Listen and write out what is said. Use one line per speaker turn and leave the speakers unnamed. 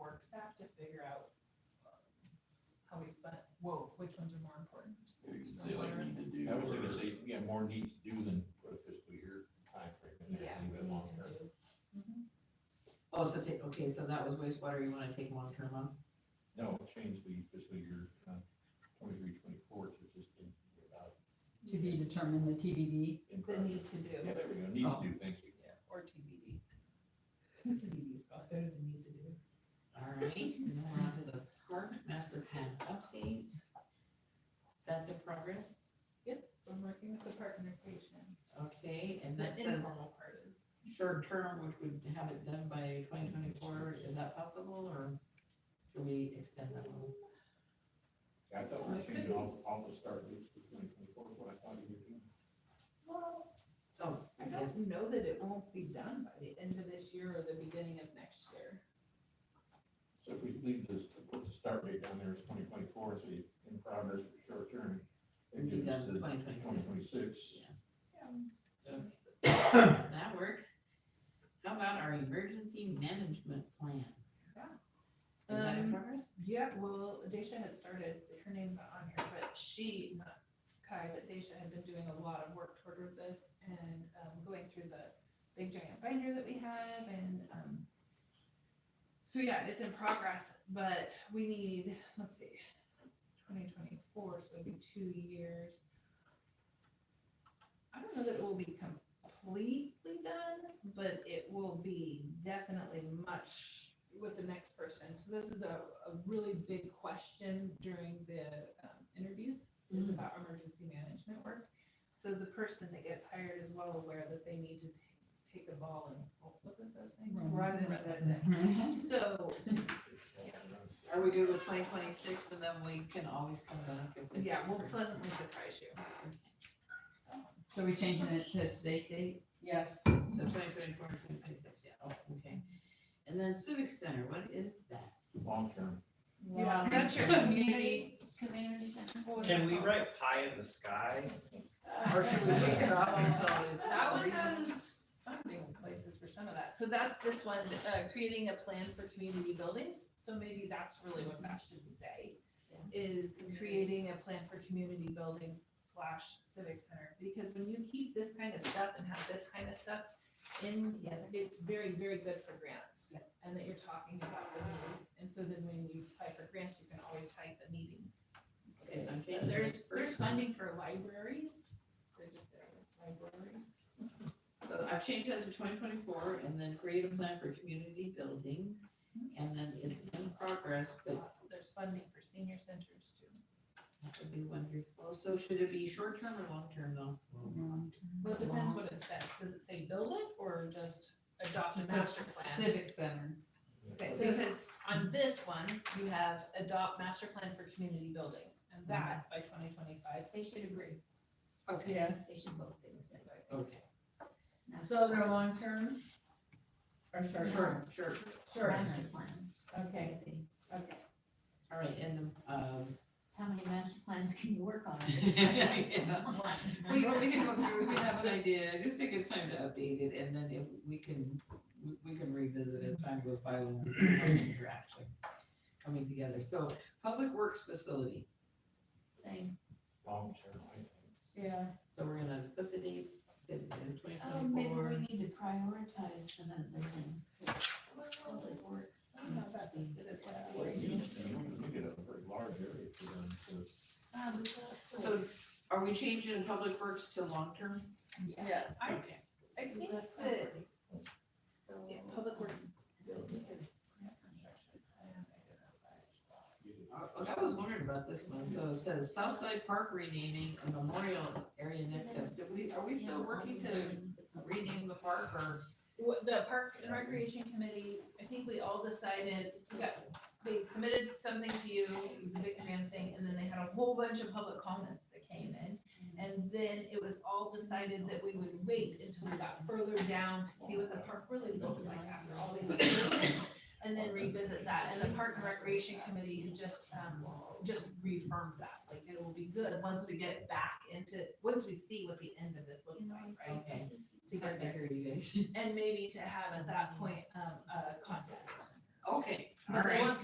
work staff to figure out um, how we fund, whoa, which ones are more important?
Maybe you could say like need to do.
I was gonna
or-
say, yeah, more need to do than put a fiscal year timeframe in there,
Yeah,
leave
we need
it longer.
to do. Mhm.
Oh, so take, okay, so that was wastewater, you wanna take long term off?
No, change the fiscal year, uh, twenty-three, twenty-four to just in, without.
to be determined, the TBD.
in
The
progress.
need to do,
Yeah, there we go, need
Oh.
to do, thank you.
yeah, or TBD.
TBD's got better than need to do. Alright, and now we're on to the park master plan update. That's in progress,
So I'm working with the park and recreation.
okay, and that
The
says
informal part is,
short term, which would have it done by twenty twenty-four, is that possible, or should we extend that one?
I thought
Well,
we
it could
changed
be.
all, all the start dates to twenty twenty-four, what I thought you were doing.
well,
Oh,
I
I guess,
don't know that it won't be done by the end of this year or the beginning of next year.
So if we leave this, put the start date down there as twenty twenty-four, so you in progress for short term. it
Be
gives
done
the
2026.
2026.
that works. How about our emergency management plan? Is that in
Um,
progress?
Yeah, well, Daisha had started, her name's not on here, but she, not Kai, but Daisha had been doing a lot of work toward this and, um, going through the big giant binder that we have and, um, so yeah, it's in progress, but we need, let's see, twenty twenty-four, so it'd be two years. I don't know that it will be completely done, but it will be definitely much with the next person. So this is a, a really big question during the um, interviews is
Mm-hmm.
Mhm.
about emergency management work. So the person that gets hired is well aware that they need to t- take a ball and, oh, what was that saying?
Run.
Run it. So,
Are we good with twenty twenty-six and then we can always come back if we.
yeah, we'll pleasantly surprise you.
So we changing it to today's date?
Yes. So twenty twenty-four, twenty twenty-six, yeah, oh, okay. And then civic center, what is that?
Long term,
Yeah, that's your community.
Community center?
what was
Can
it
we
called?
write pie in the sky?
uh,
Or should we take it off until it's?
That one has funding places for some of that. So that's this one, uh, creating a plan for community buildings. So maybe that's really what that should say.
Yeah.
Is creating a plan for community buildings slash civic center. Because when you keep this kind of stuff and have this kind of stuff in,
Together.
it's very, very good for grants.
Yeah.
And that you're talking about the need. And so then when you apply for grants, you can always cite the meetings.
Okay, so I'm
Yeah,
changing
There's,
this
there's
first one.
funding for libraries, they're just there, libraries.
So I've changed that to twenty twenty-four and then create a plan for community building. And then it's in progress, but
Lots of- There's funding for senior centers too.
that would be wonderful. So should it be short-term or long-term though?
Well, it depends what it says, does it say build it or just adopt a
Just
master
a
plan?
Civic center.
Okay, so it says, on this one, you have adopt master plan for community buildings, and that by twenty twenty-five, they should agree.
Okay,
They
yes,
should both be the same.
Okay.
so they're long term? Or short?
Sure, sure.
Sure.
Master
plan. Okay, okay.
All right, and the, um,
How many master plans can you work on?
Yeah. we, we can go through, we have an idea, I just think it's time to update it, and then if we can, we- we can revisit as time goes by when we see how things are actually coming together. So, public works facility,
Same,
long term, I think.
yeah.
so we're gonna put the date in twenty
Oh, maybe we
twenty-four.
need to prioritize some of the things. Public works.
I don't know if that listed as what I
Well,
was.
you you get a very large area for them, so
So, are we changing public works to long-term?
Yes.
I,
Okay.
I think that, yeah, public works. building and construction plan identified.
you get
Uh, I was wondering about this one, so it says Southside Park renaming a memorial area next up, do we, are we still working to rename the park or?
Wha- The Park and Recreation Committee, I think we all decided, we got, they submitted something to you, it was a big grand thing, and then they had a whole bunch of public comments that came in. And then it was all decided that we would wait until we got further down to see what the park really looked like after all these amendments, and then revisit that, and the Park and Recreation Committee had just, um, just reaffirmed that, like, it will be good once we get back into, once we see what the end of this looks like, right?
Okay,
To get there.
I hear you guys.
And maybe to have at that point, um, a contest
Okay,
But
all
the
right.
one